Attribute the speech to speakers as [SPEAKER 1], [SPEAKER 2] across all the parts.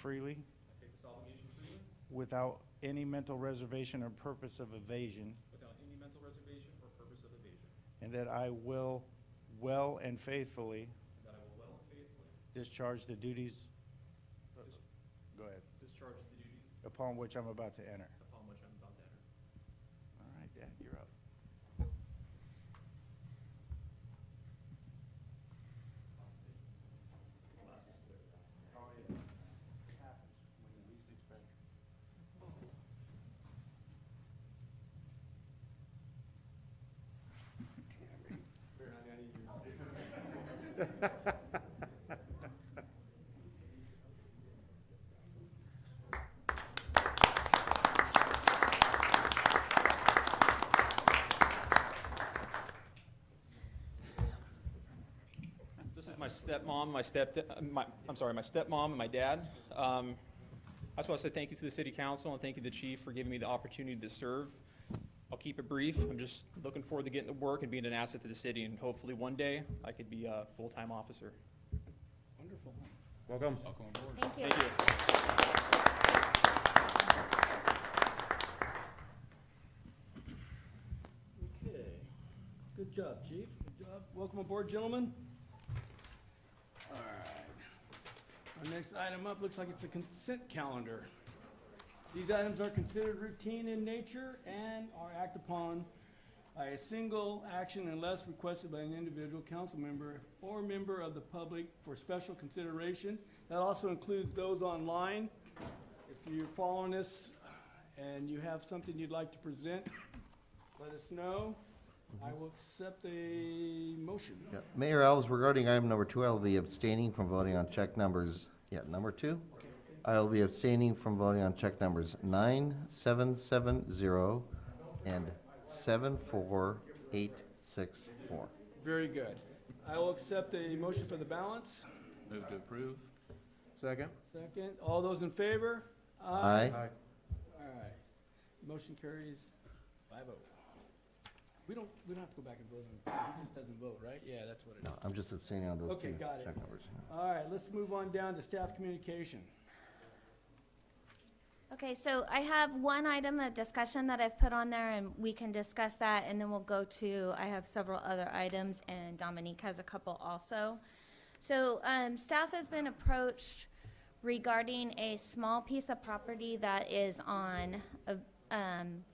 [SPEAKER 1] freely
[SPEAKER 2] I take this obligation freely,
[SPEAKER 1] without any mental reservation or purpose of evasion,
[SPEAKER 2] without any mental reservation or purpose of evasion,
[SPEAKER 1] and that I will well and faithfully
[SPEAKER 2] and that I will well and faithfully
[SPEAKER 1] discharge the duties. Go ahead.
[SPEAKER 2] discharge the duties
[SPEAKER 1] Upon which I'm about to enter.
[SPEAKER 2] upon which I'm about to enter.
[SPEAKER 1] All right, Dad, you're up.
[SPEAKER 2] This is my stepmom, my step, uh, my, I'm sorry, my stepmom and my dad. Um, I just want to say thank you to the city council and thank you to the chief for giving me the opportunity to serve. I'll keep it brief. I'm just looking forward to getting to work and being an asset to the city, and hopefully one day I could be a full-time officer.
[SPEAKER 1] Wonderful.
[SPEAKER 3] Welcome.
[SPEAKER 2] Welcome aboard.
[SPEAKER 4] Thank you.
[SPEAKER 2] Thank you.
[SPEAKER 5] Okay, good job, chief, good job. Welcome aboard, gentlemen. All right. Our next item up looks like it's the consent calendar. These items are considered routine in nature and are acted upon by a single action unless requested by an individual council member or member of the public for special consideration. That also includes those online. If you're following us and you have something you'd like to present, let us know. I will accept a motion.
[SPEAKER 6] Yeah, Mayor Alves, regarding item number two, I'll be abstaining from voting on check numbers, yeah, number two. I'll be abstaining from voting on check numbers nine, seven, seven, zero, and seven, four, eight, six, four.
[SPEAKER 5] Very good. I will accept a motion for the balance.
[SPEAKER 7] Move to approve.
[SPEAKER 3] Second?
[SPEAKER 5] Second, all those in favor?
[SPEAKER 6] Aye.
[SPEAKER 5] All right. Motion carries five oh. We don't, we don't have to go back and vote on, he just doesn't vote, right? Yeah, that's what it
[SPEAKER 6] No,
[SPEAKER 5] is.
[SPEAKER 6] I'm just abstaining on those
[SPEAKER 5] Okay,
[SPEAKER 6] two
[SPEAKER 5] got it.
[SPEAKER 6] check numbers.
[SPEAKER 5] All right, let's move on down to staff communication.
[SPEAKER 4] Okay, so I have one item of discussion that I've put on there, and we can discuss that, and then we'll go to, I have several other items, and Dominique has a couple also. So, um, staff has been approached regarding a small piece of property that is on, a- um,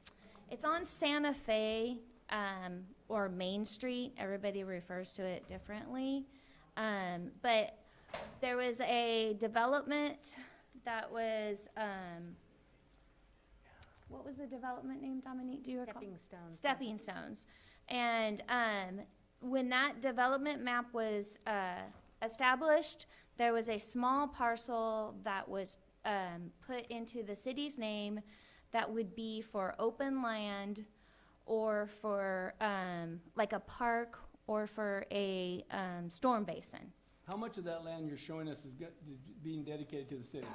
[SPEAKER 4] it's on Santa Fe, um, or Main Street. Everybody refers to it differently. Um, but there was a development that was, um, what was the development name, Dominique? Do you recall?
[SPEAKER 8] Stepping stones.
[SPEAKER 4] stepping stones. And um, when that development map was uh, established, there was a small parcel that was um, put into the city's name that would be for open land or for um, like a park or for a um, storm basin.
[SPEAKER 5] How much of that land you're showing us is go- is being dedicated to the city?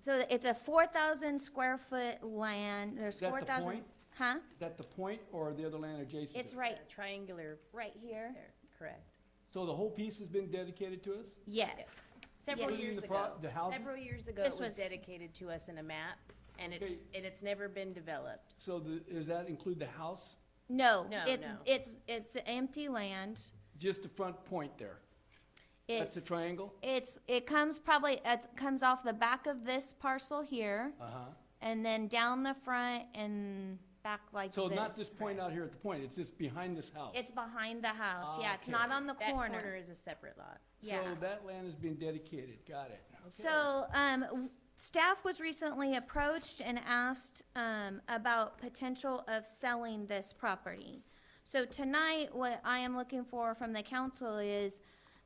[SPEAKER 4] So it's a four thousand square foot land, there's
[SPEAKER 5] Is that the
[SPEAKER 4] four thousand.
[SPEAKER 5] point?
[SPEAKER 4] Huh?
[SPEAKER 5] Is that the point or the other land adjacent to
[SPEAKER 4] It's
[SPEAKER 5] it?
[SPEAKER 4] right,
[SPEAKER 8] Triangular.
[SPEAKER 4] right
[SPEAKER 8] piece
[SPEAKER 4] here.
[SPEAKER 8] there, Correct.
[SPEAKER 5] So the whole piece has been dedicated to us?
[SPEAKER 4] Yes.
[SPEAKER 8] Several
[SPEAKER 4] Yes.
[SPEAKER 8] years
[SPEAKER 5] The pro-
[SPEAKER 8] ago.
[SPEAKER 5] the house-
[SPEAKER 8] Several years ago,
[SPEAKER 4] This
[SPEAKER 8] it
[SPEAKER 4] was-
[SPEAKER 8] was dedicated to us in a map, and it's, and it's never been developed.
[SPEAKER 5] So the, does that include the house?
[SPEAKER 4] No,
[SPEAKER 8] No,
[SPEAKER 4] it's,
[SPEAKER 8] no.
[SPEAKER 4] it's, it's empty land.
[SPEAKER 5] Just the front point there? That's the
[SPEAKER 4] It's,
[SPEAKER 5] triangle?
[SPEAKER 4] it's, it comes probably, it comes off the back of this parcel here
[SPEAKER 5] Uh-huh.
[SPEAKER 4] and then down the front and back like
[SPEAKER 5] So not this
[SPEAKER 4] this.
[SPEAKER 5] point out here at the point, it's just behind this house?
[SPEAKER 4] It's behind the house. Yeah, it's not
[SPEAKER 5] Okay.
[SPEAKER 4] on the
[SPEAKER 8] That corner
[SPEAKER 4] corner.
[SPEAKER 8] is a separate lot.
[SPEAKER 4] Yeah.
[SPEAKER 5] So that land is being dedicated, got it. Okay.
[SPEAKER 4] So, um, w- staff was recently approached and asked, um, about potential of selling this property. So tonight, what I am looking for from the council is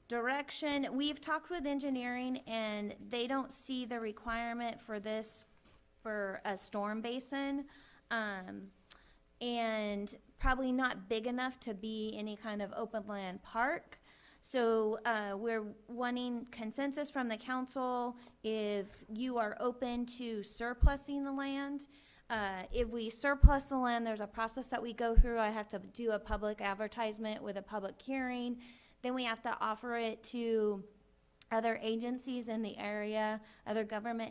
[SPEAKER 4] direction. We've talked with engineering and they don't see the requirement for this, for a storm basin. Um, and probably not big enough to be any kind of open land park. So uh, we're wanting consensus from the council if you are open to surplusing the land. Uh, If we surplus the land, there's a process that we go through. I have to do a public advertisement with a public hearing. Then we have to offer it to other agencies in the area, other government